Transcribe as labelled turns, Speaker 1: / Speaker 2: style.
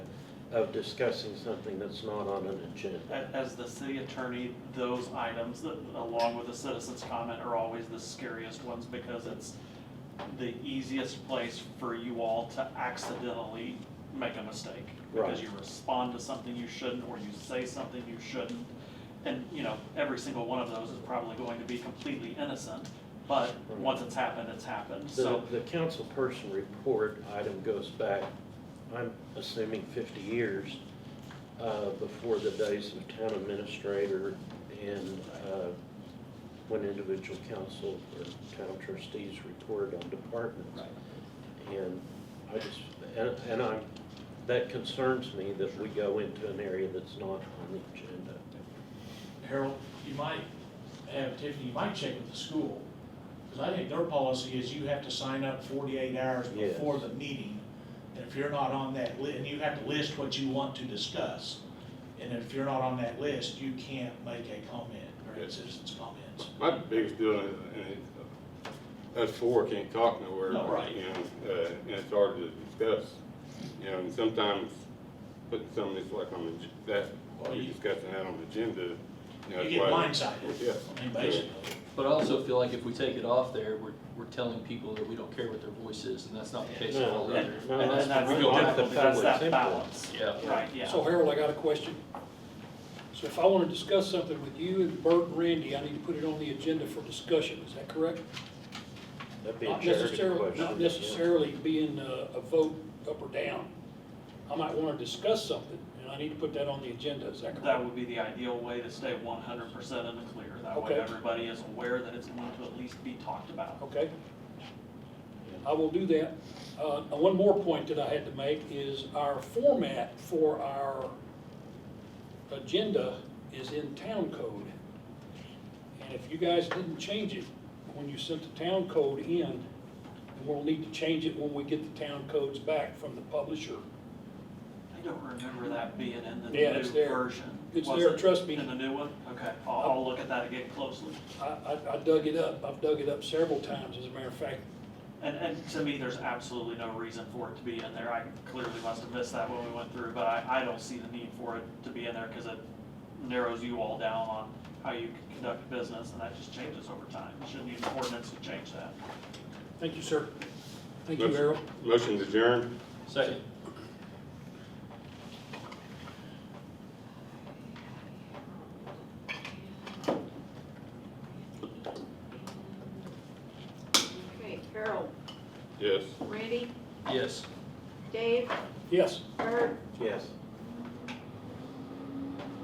Speaker 1: of discussing something that's not on an agenda.
Speaker 2: A- As the city attorney, those items, that- along with the citizen's comment, are always the scariest ones because it's the easiest place for you all to accidentally make a mistake. Because
Speaker 1: Right.
Speaker 2: you respond to something you shouldn't, or you say something you shouldn't. And, you know, every single one of those is probably going to be completely innocent, but
Speaker 1: Right.
Speaker 2: once it's happened, it's happened,
Speaker 1: The,
Speaker 2: so.
Speaker 1: the council person report item goes back, I'm assuming fifty years, uh, before the days of town administrator and, uh, when individual council or town trustees reported on departments. And I just, and, and I'm, that concerns me that we go into an area that's not on the agenda.
Speaker 3: Harold, you might have, Tiffany, you might check with the school, because I think their policy is you have to sign up forty-eight hours
Speaker 1: Yes.
Speaker 3: before the meeting. And if you're not on that li, and you have to list what you want to discuss, and if you're not on that list, you can't make a comment or a citizen's comments.
Speaker 4: My biggest deal, and us four can't talk nowhere.
Speaker 3: No, right.
Speaker 4: You know, uh, and it's hard to discuss, you know, and sometimes putting something that's like on the, that,
Speaker 3: Well,
Speaker 4: you're
Speaker 3: you-
Speaker 4: discussing that on the agenda, you know.
Speaker 3: You
Speaker 4: it's
Speaker 3: get
Speaker 4: why-
Speaker 3: blindsided,
Speaker 4: Yeah.
Speaker 3: I mean, basically.
Speaker 5: But I also feel like if we take it off there, we're, we're telling people that we don't care what their voice is, and that's not the case at all
Speaker 1: No,
Speaker 5: either.
Speaker 2: And
Speaker 1: no,
Speaker 2: and
Speaker 1: that's-
Speaker 2: then that's,
Speaker 5: we
Speaker 2: the
Speaker 5: go back
Speaker 2: difficult-
Speaker 1: to
Speaker 2: that's
Speaker 1: public
Speaker 2: that
Speaker 1: input.
Speaker 2: balance.
Speaker 5: Yeah.
Speaker 2: Right, yeah.
Speaker 6: So Harold, I got a question. So if I want to discuss something with you and Bert and Randy, I need to put it on the agenda for discussion, is that correct?
Speaker 1: That'd be a
Speaker 6: Not
Speaker 1: charity
Speaker 6: necessarily,
Speaker 1: question.
Speaker 6: not necessarily being a, a vote up or down. I might want to discuss something, and I need to put that on the agenda, is that
Speaker 2: That
Speaker 6: correct?
Speaker 2: would be the ideal way to stay one hundred percent in the clear. That way
Speaker 6: Okay.
Speaker 2: everybody is aware that it's going to at least be talked about.
Speaker 6: Okay? I will do that. Uh, and one more point that I had to make is our format for our agenda is in town code. And if you guys didn't change it when you sent the town code in, then we'll need to change it when we get the town codes back from the publisher.
Speaker 2: I don't remember that being in the
Speaker 6: Yeah, it's
Speaker 2: new
Speaker 6: there.
Speaker 2: version.
Speaker 6: It's
Speaker 2: Was
Speaker 6: there,
Speaker 2: it
Speaker 6: trust me.
Speaker 2: In the new one? Okay, I'll, I'll look at that again closely.
Speaker 6: I, I, I dug it up, I've dug it up several times, as a matter of fact.
Speaker 2: And, and to me, there's absolutely no reason for it to be in there. I clearly must have missed that when we went through, but I, I don't see the need for it to be in there because it narrows you all down on how you conduct business and that just changes over time. Shouldn't need an ordinance to change that.
Speaker 6: Thank you, sir. Thank you,
Speaker 4: Motion-
Speaker 6: Harold.
Speaker 4: Motion to adjourn.
Speaker 5: Second.
Speaker 7: Okay, Harold,
Speaker 4: yes.
Speaker 7: Randy,
Speaker 5: Yes.
Speaker 7: Dave,
Speaker 6: Yes.
Speaker 7: Herb,
Speaker 1: Yes.